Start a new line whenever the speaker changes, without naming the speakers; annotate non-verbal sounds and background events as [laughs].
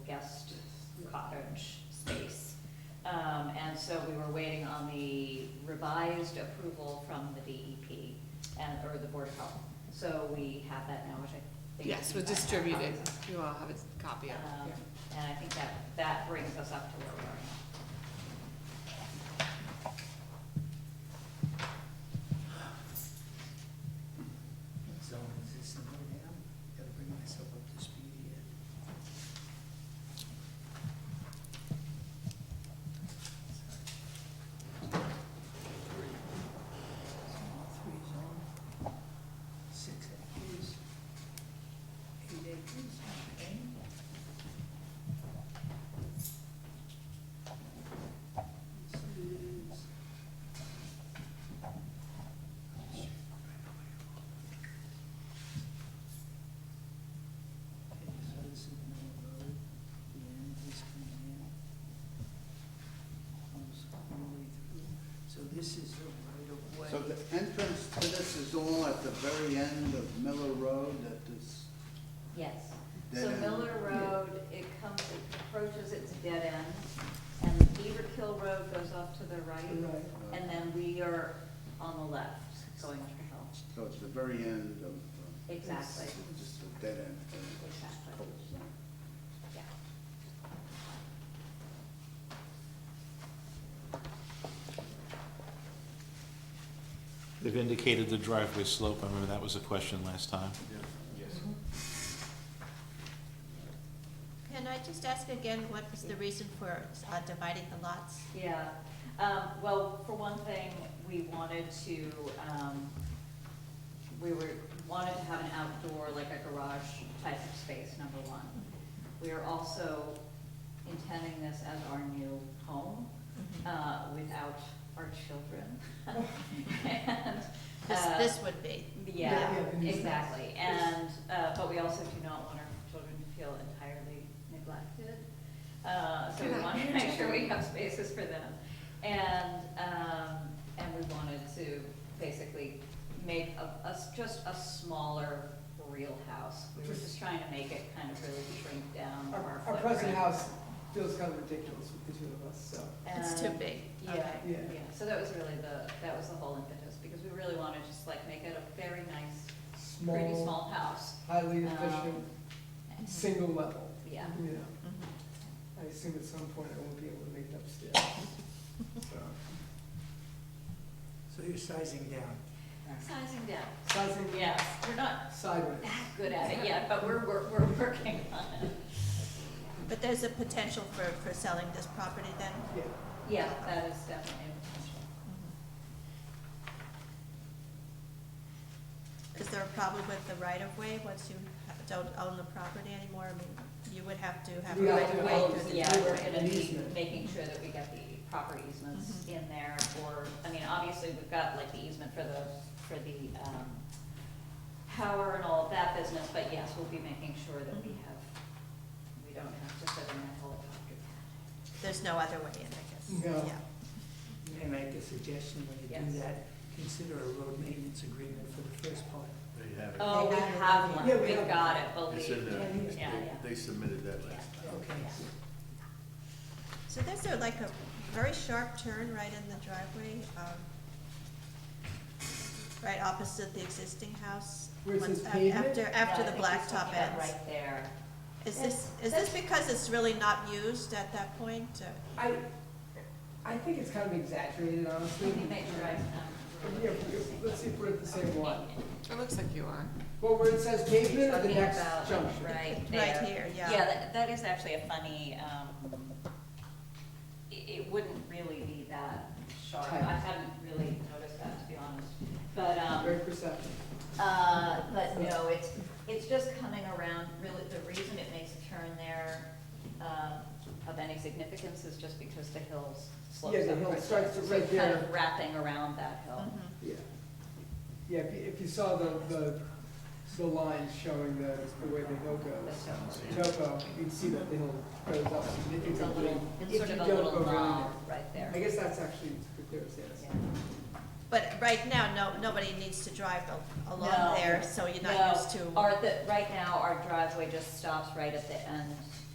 guest cottage space. Um, and so we were waiting on the revised approval from the DEP and, or the Board of Health. So we have that now, which I think.
Yes, we'll
you guys have
distribute it.
copies of.
You all have a copy of
Um,
it.
And I think that, that brings us up to where we are now.
So is this something now? Gotta bring myself up to speed here. Small three zone, six acres, eight acres, okay. This is. Okay, so this is Mill Road, the end is coming in. Comes all the way through. So this is the right of way.
So the entrance to this is all at the very end of Miller Road at this,
Yes.
Dead
So
end.
Miller Road, it comes, it approaches its dead end, and Beaver Kill Road goes off to the right,
Right.
and then we are on the left, going up the hill.
so it's the very end of. uh,
Exactly.
it's Just a dead end. thing. It's just
Exactly.
cul-de-sac.
Yeah.
They've indicated the driveway slope, I remember that was a question last time.
Can I just ask again, what was the reason for uh, dividing the lots?
Yeah, um, well, for one thing, we wanted to, um, we were, wanted to have an outdoor, like a garage type of space, number one. We are also intending this as our new home, uh, without our children. [laughs] And,
This,
uh,
this would be.
yeah,
Yeah, yeah.
exactly, and, uh, but we also do not want our children to feel entirely neglected. Uh, so we
Good
want to
idea.
make sure we have spaces for them. And, um, and we wanted to basically make a, a s- just a smaller real house. We were just trying to make it kind of really shrink down our
Our, our
footprint.
present house feels kind of ridiculous with the two of us, so.
It's too
And-
big.
um, Yeah,
Okay.
yeah, so that was really the, that was the whole impetus, because we really want to just like make it a very nice pretty small house.
Highly
Um,
efficient, single level.
Mm-hmm. Yeah. Mm-hmm.
You know,
Mhm.
I assume at some point I won't be able to make it upstairs.
[laughs]
So you're sizing down?
Sizing down.
Sizing
Yes, we're not
sideways.
that good at it yet, but we're, we're, we're working on it.
But there's a potential for, for selling this property then?
Yeah,
Yeah, that is definitely a
Is there a problem with the right of way once you ha- don't own the property anymore? I mean, you would have to have a
We have
right
to
of way
own
potential.
through the
it,
Yeah,
driveway.
we're gonna be
Easement.
making sure that we get the proper easements in there, or, I mean, obviously, we've got like the easement for the, for the, um, power and all of that business, but yes, we'll be making sure that we have, we don't have to sit in that helicopter pad.
There's no other way in, I guess.
No.
Yeah.
May I make a suggestion when you do
Yes.
that? Consider a road maintenance agreement for the first part.
They have it.
Oh, we have
Yeah,
one,
we
we've
have
got it,
It's in
believe.
there.
Yeah, yeah.
They- They submitted that last time.
Okay.
So there's a, like a very sharp turn right in the driveway, um, right opposite the existing house.
Where it
once-
says
af-
pavement?
After, after
Yeah,
the
I think he's
blacktop
looking at
ends.
Right there.
Is this, is this because it's really not used at that point? Uh, or-
I, I think it's kind of exaggerated,
We
honestly.
[laughs] can make sure I, um,
Yeah, let's see if we're at the same one.
It looks like you are.
Well, where it says pavement at the
Talking
next
about,
junction.
Right there.
Right here, yeah.
Yeah, that, that is actually a funny, um, it, it wouldn't really be that sharp. I
Tight.
hadn't really noticed that, to be honest. But,
Very
um,
perceptive.
uh, but no, it's, it's just coming around, really, the reason it makes a turn there, um, of any significance is just because the hills slopes
Yeah,
up.
the hill
right there.
starts
So
right
it's Kind
there.
of wrapping around that hill.
Mhm.
Yeah. Yeah, if you, if you saw the, the, the lines showing the, the way the hill
The
goes,
stone.
topo, you'd see that the hill goes up
It's a
significantly.
little,
if
it's
you
sort of a
don't
little
go around
knob
it.
right there.
I guess that's actually the clearest
Yeah.
answer.
But right now, no, nobody needs to drive al-
No.
along there, so you're
No, Oh,
not used to.
Our, the, right now, our driveway just stops right at the end